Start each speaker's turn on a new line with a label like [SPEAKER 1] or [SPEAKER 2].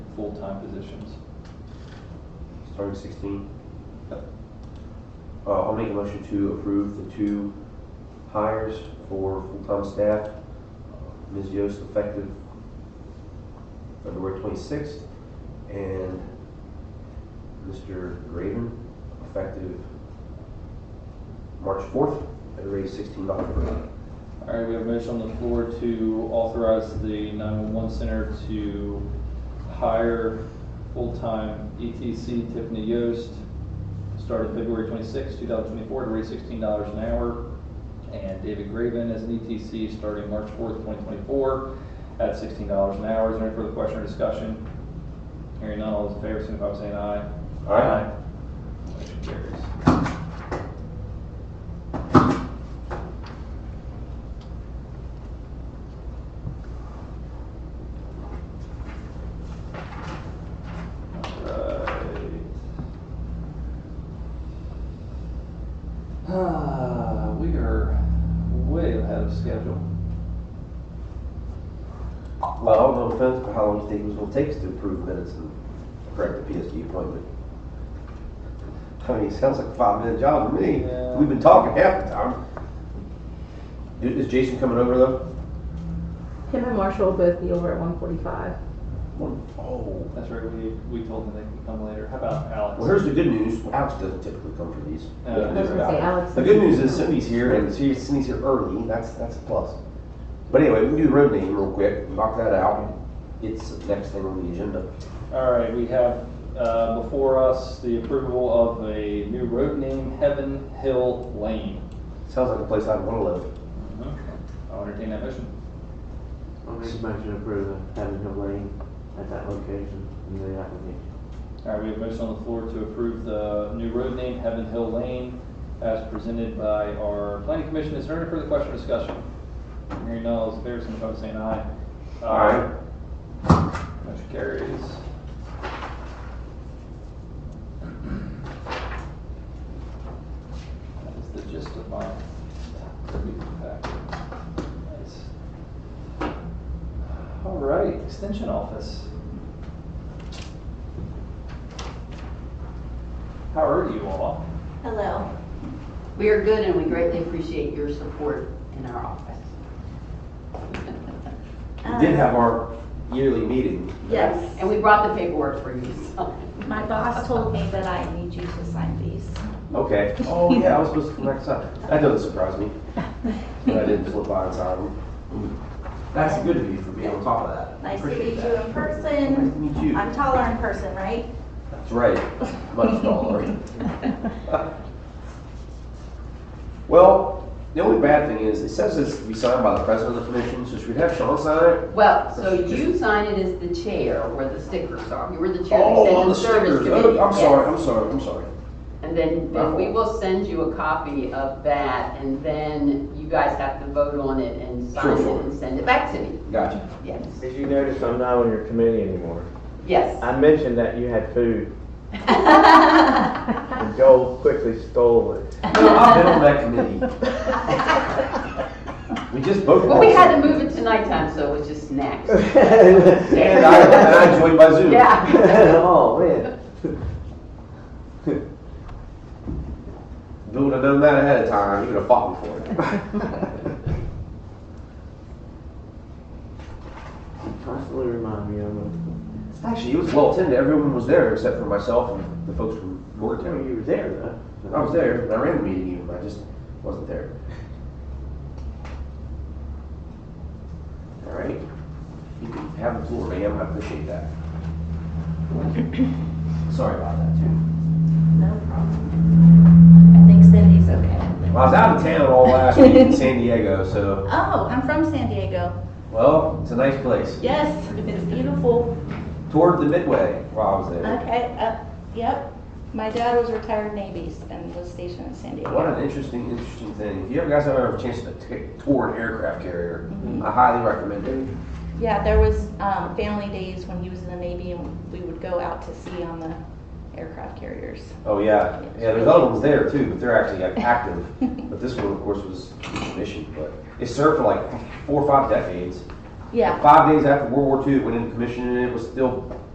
[SPEAKER 1] full-time positions.
[SPEAKER 2] starting sixteen. Uh, I'll make a motion to approve the two hires for full-time staff. Uh, Ms. Yost effective February twenty-sixth, and Mr. Graven effective March fourth, at a rate of sixteen dollars per hour.
[SPEAKER 1] All right, we have a motion on the floor to authorize the 911 center to hire full-time ETC Tiffany Yost, started February 26, 2024, to rate $16 an hour, and David Graven as an ETC starting March fourth, 2024, at $16 an hour. Is there any further question or discussion? Hearing none, all those in favor, signify by saying aye.
[SPEAKER 2] Aye.
[SPEAKER 1] Motion carries. Ah, we are way ahead of schedule.
[SPEAKER 2] Well, no offense, but how long do you think it was gonna take us to approve minutes and correct the PSG appointment? I mean, it sounds like a five-minute job to me.
[SPEAKER 1] Yeah.
[SPEAKER 2] We've been talking half the time. Is is Jason coming over though?
[SPEAKER 3] Him and Marshall will both be over at one forty-five.
[SPEAKER 2] Oh.
[SPEAKER 1] That's right, we, we told them they could come later. How about
[SPEAKER 2] Well,
[SPEAKER 1] Alex?
[SPEAKER 2] here's the good news. Alex doesn't typically come for these.
[SPEAKER 1] Uh,
[SPEAKER 2] Good news
[SPEAKER 3] I was gonna say,
[SPEAKER 2] about it.
[SPEAKER 3] Alex
[SPEAKER 2] The good
[SPEAKER 3] doesn't.
[SPEAKER 2] news is Cindy's here and she- Cindy's here early. That's, that's a plus. But anyway, we can do the road name real quick, knock that out. It's the next thing on the agenda.
[SPEAKER 1] All right, we have, uh, before us the approval of a new road name, Heaven Hill Lane.
[SPEAKER 2] Sounds like a place I'd wanna live.
[SPEAKER 1] I'll entertain that motion.
[SPEAKER 4] I'll make a motion to approve of having Hill Lane at that location in the application.
[SPEAKER 1] All right, we have a motion on the floor to approve the new road name, Heaven Hill Lane, as presented by our planning commission. Is there any further question or discussion? Hearing none, all those in favor, signify by saying aye.
[SPEAKER 2] Aye.
[SPEAKER 1] Motion carries. That is the gist of my review packet. Nice. All right, extension office. How are you all?
[SPEAKER 5] Hello. We are good and we greatly appreciate your support in our office.
[SPEAKER 2] We did have our yearly meeting.
[SPEAKER 5] Yes, and we brought the paperwork for you, so.
[SPEAKER 6] My boss told me that I need you to sign these.
[SPEAKER 2] Okay. Oh, yeah, I was supposed to come next time. That doesn't surprise me, but I didn't flip by in time. That's good of you for being on top of that.
[SPEAKER 6] Nice to
[SPEAKER 2] Appreciate
[SPEAKER 6] meet you
[SPEAKER 2] that.
[SPEAKER 6] in
[SPEAKER 2] Nice to
[SPEAKER 6] person.
[SPEAKER 2] meet you.
[SPEAKER 6] I'm taller in person, right?
[SPEAKER 2] That's right, much taller. Well, the only bad thing is, it says it's to be signed by the president of the commission, so should we have Sean sign it?
[SPEAKER 5] Well, so you sign it as the chair where the stickers are. You were the chair
[SPEAKER 2] Oh, on
[SPEAKER 5] of
[SPEAKER 2] the
[SPEAKER 5] the Extended Service
[SPEAKER 2] stickers.
[SPEAKER 5] Committee.
[SPEAKER 2] Oh, I'm
[SPEAKER 5] yes.
[SPEAKER 2] sorry, I'm sorry, I'm sorry.
[SPEAKER 5] And then,
[SPEAKER 2] My
[SPEAKER 5] then we
[SPEAKER 2] fault.
[SPEAKER 5] will send you a copy of that and then you guys have to vote on it and
[SPEAKER 2] Sure,
[SPEAKER 5] sign it
[SPEAKER 2] sure.
[SPEAKER 5] and send it back to me.
[SPEAKER 2] Gotcha.
[SPEAKER 5] Yes,
[SPEAKER 4] Did you notice I'm not on your committee anymore?
[SPEAKER 5] yes.
[SPEAKER 4] I mentioned that you had food, and Joel quickly stole it.
[SPEAKER 2] No, I've been on that committee. We just both.
[SPEAKER 5] Well, we had to move it to nighttime, so it was just snacks.
[SPEAKER 2] And I, and I joined by Zoom.
[SPEAKER 5] Yeah.
[SPEAKER 4] Oh, man.
[SPEAKER 2] If we would have done that ahead of time, you would have fought me for it.
[SPEAKER 4] Constantly remind me of
[SPEAKER 2] Actually, it was well attended. Everyone was there except for myself and the folks from
[SPEAKER 4] it. Well,
[SPEAKER 2] Morgantown.
[SPEAKER 4] you were there, though.
[SPEAKER 2] I was there, and I ran the meeting even, but I just wasn't there. All right. You can have the floor, ma'am. I appreciate that. Sorry about that, too.
[SPEAKER 6] No problem. I think Cindy's okay.
[SPEAKER 2] Well, I was out of town all last week in San Diego, so,
[SPEAKER 6] Oh, I'm from San Diego.
[SPEAKER 2] well, it's a nice place.
[SPEAKER 6] Yes, it's beautiful.
[SPEAKER 2] Toward the Midway while I was there.
[SPEAKER 6] Okay, uh, yep. My dad was retired Navy and was stationed in San Diego.
[SPEAKER 2] What an interesting, interesting thing. If you ever guys have ever a chance to take, tour an aircraft carrier, I highly recommend it.
[SPEAKER 6] Yeah, there was um, family days when he was in the Navy, and we would go out to sea on the aircraft carriers.
[SPEAKER 2] Oh yeah, yeah. There's other ones there too, but they're actually like active. but this one, of course, was commissioned, but it served for like four or five decades.
[SPEAKER 6] Yeah.
[SPEAKER 2] Five days after World War II, it went into commission, and it was still